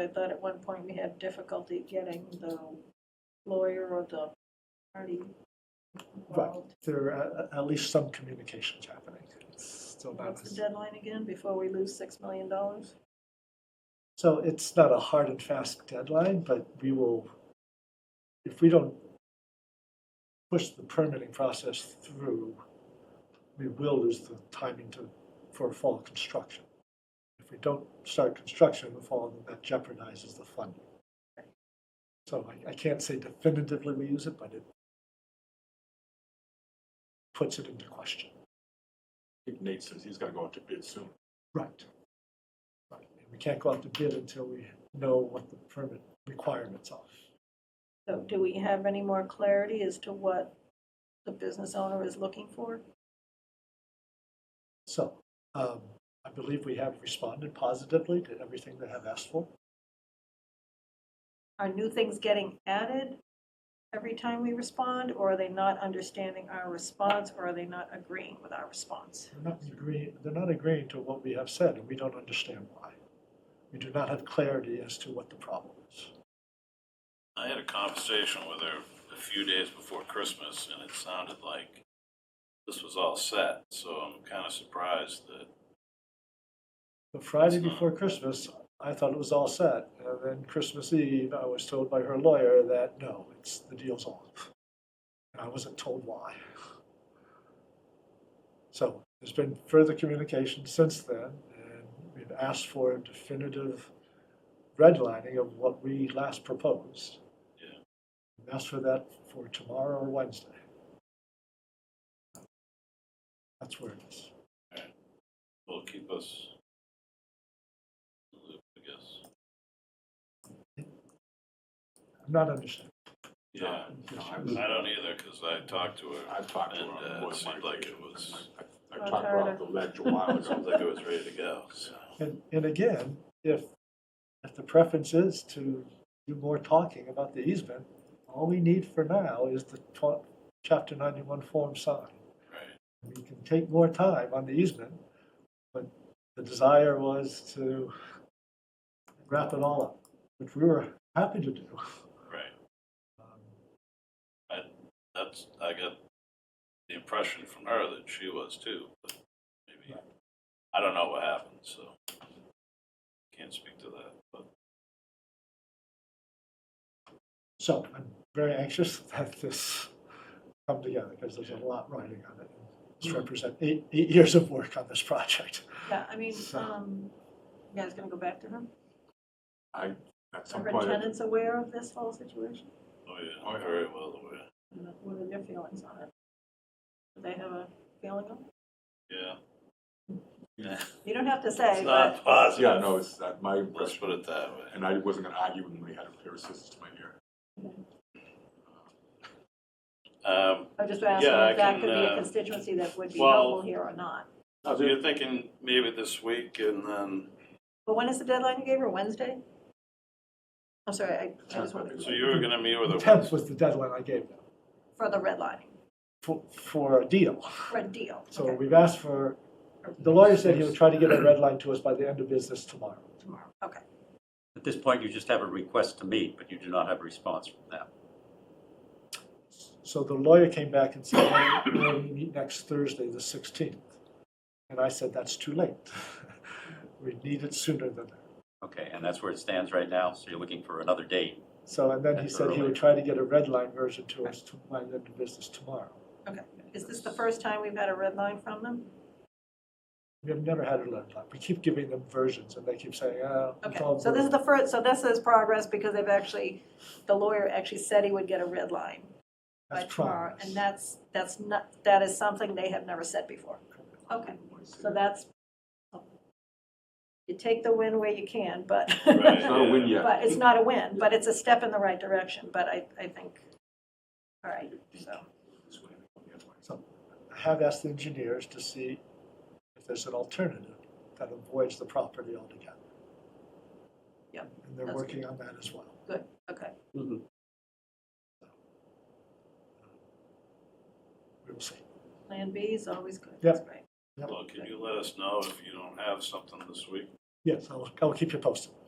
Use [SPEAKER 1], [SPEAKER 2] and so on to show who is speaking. [SPEAKER 1] I thought at one point we had difficulty getting the lawyer or the party
[SPEAKER 2] Right,
[SPEAKER 1] involved.
[SPEAKER 2] there are uh, at least some communications happening. It's still not,
[SPEAKER 1] What's the
[SPEAKER 2] as-
[SPEAKER 1] deadline again, before we lose six million dollars?
[SPEAKER 2] so it's not a hard and fast deadline, but we will, if we don't push the permitting process through, we will lose the timing to, for fall construction. If we don't start construction in the fall, then that jeopardizes the funding. So I, I can't say definitively we use it, but it puts it into question.
[SPEAKER 3] I think Nate says he's gotta go out to bid soon.
[SPEAKER 2] Right. Right. We can't go out to bid until we know what the permit requirements are.
[SPEAKER 1] So do we have any more clarity as to what the business owner is looking for?
[SPEAKER 2] So, um, I believe we have responded positively to everything they have asked for.
[SPEAKER 1] Are new things getting added every time we respond, or are they not understanding our response, or are they not agreeing with our response?
[SPEAKER 2] They're not agreeing, they're not agreeing to what we have said, and we don't understand why. We do not have clarity as to what the problem is.
[SPEAKER 4] I had a conversation with her a few days before Christmas, and it sounded like this was all set, so I'm kind of surprised that
[SPEAKER 2] The Friday before Christmas, I thought it was all set, and then Christmas Eve, I was told by her lawyer that, no, it's, the deal's off. And I wasn't told why. So there's been further communication since then, and we've asked for a definitive redlining of what we last proposed.
[SPEAKER 4] Yeah.
[SPEAKER 2] We've asked for that for tomorrow or Wednesday. That's where it is.
[SPEAKER 4] will keep us in the loop, I guess.
[SPEAKER 2] I'm not understanding.
[SPEAKER 4] Yeah,
[SPEAKER 3] No, Uh, I was-
[SPEAKER 4] I don't either, because I talked to her.
[SPEAKER 3] I've talked to her.
[SPEAKER 4] And,
[SPEAKER 3] on
[SPEAKER 4] uh,
[SPEAKER 3] more
[SPEAKER 4] it seemed
[SPEAKER 3] than one
[SPEAKER 4] like
[SPEAKER 3] occasion.
[SPEAKER 4] it was-
[SPEAKER 3] I- I talked her off the ledge a while
[SPEAKER 4] It sounds
[SPEAKER 3] ago.
[SPEAKER 4] like it was ready to go, so.
[SPEAKER 2] And, and again, if, if the preference is to do more talking about the easement, all we need for now is the tw- chapter ninety-one form signed.
[SPEAKER 4] Right.
[SPEAKER 2] We can take more time on the easement, but the desire was to wrap it all up, which we were happy to do.
[SPEAKER 4] Right,
[SPEAKER 2] Um,
[SPEAKER 4] that's, I got the impression from her that she was too, but maybe, I don't know what happened, so. Can't speak to that, but.
[SPEAKER 2] So I'm very anxious that this come together, because there's a lot riding on it. This represents eight, eight years of work on this project.
[SPEAKER 1] Yeah, I mean,
[SPEAKER 2] So-
[SPEAKER 1] um, you guys gonna go back to her?
[SPEAKER 3] I, at
[SPEAKER 1] Are
[SPEAKER 3] some
[SPEAKER 1] her
[SPEAKER 3] point, I-
[SPEAKER 1] tenants aware of this whole situation?
[SPEAKER 4] Oh, yeah, very well aware.
[SPEAKER 1] And What are their feelings on it? Do they have a feeling on it?
[SPEAKER 4] Yeah.
[SPEAKER 1] You don't have to
[SPEAKER 4] It's
[SPEAKER 1] say, but
[SPEAKER 4] not positive.
[SPEAKER 3] yeah, no, it's that my
[SPEAKER 4] Let's
[SPEAKER 3] impression,
[SPEAKER 4] put it that way.
[SPEAKER 3] and I wasn't gonna argue when we had a pair of scissors to my ear.
[SPEAKER 4] Um,
[SPEAKER 1] I'm just asking
[SPEAKER 4] Yeah, I
[SPEAKER 1] if that
[SPEAKER 4] can,
[SPEAKER 1] could be a
[SPEAKER 4] uh,
[SPEAKER 1] constituency that would be
[SPEAKER 4] well-
[SPEAKER 1] helpful here or not.
[SPEAKER 4] so you're thinking maybe this week and then,
[SPEAKER 1] But when is the deadline you gave her, Wednesday? I'm sorry, I I just wanted,
[SPEAKER 4] so you were gonna meet with
[SPEAKER 2] The
[SPEAKER 4] her.
[SPEAKER 2] tenth was the deadline I gave them
[SPEAKER 1] for the redlining,
[SPEAKER 2] for, for a deal.
[SPEAKER 1] for a deal,
[SPEAKER 2] So
[SPEAKER 1] okay,
[SPEAKER 2] we've asked for, the lawyer said he would try to get a red line to us by the end of business tomorrow.
[SPEAKER 1] tomorrow, okay.
[SPEAKER 5] At this point, you just have a request to meet, but you do not have a response from them.
[SPEAKER 2] So the lawyer came back and said, "Well, we're going to meet next Thursday, the sixteenth. And I said, that's too late. We need it sooner than that.
[SPEAKER 5] Okay, and that's where it stands right now, so you're looking for another date.
[SPEAKER 2] So, and then he
[SPEAKER 5] That's
[SPEAKER 2] said he
[SPEAKER 5] early.
[SPEAKER 2] would try to get a red line version to us to by the end of business tomorrow.
[SPEAKER 1] Is this the first time we've had a red line from them?
[SPEAKER 2] We have never had a red line. We keep giving them versions and they keep saying, oh.
[SPEAKER 1] Okay, so this is the first, so this is progress because they've actually, the lawyer actually said he would get a red line by tomorrow. And that's, that's not, that is something they have never said before. Okay, so that's, you take the win where you can, but,
[SPEAKER 3] It's not a win yet.
[SPEAKER 1] but it's not a win, but it's a step in the right direction, but I, I think, all right, so.
[SPEAKER 2] So I have asked the engineers to see if there's an alternative that avoids the property altogether.
[SPEAKER 1] Yep,
[SPEAKER 2] And they're
[SPEAKER 1] that's
[SPEAKER 2] working on that as well.
[SPEAKER 1] Good, okay.
[SPEAKER 2] We will see.
[SPEAKER 1] Plan B is always good,
[SPEAKER 2] Yep.
[SPEAKER 1] that's right.
[SPEAKER 4] Well, can you let us know if you don't have something this week?
[SPEAKER 2] Yes, I will, I will keep you posted.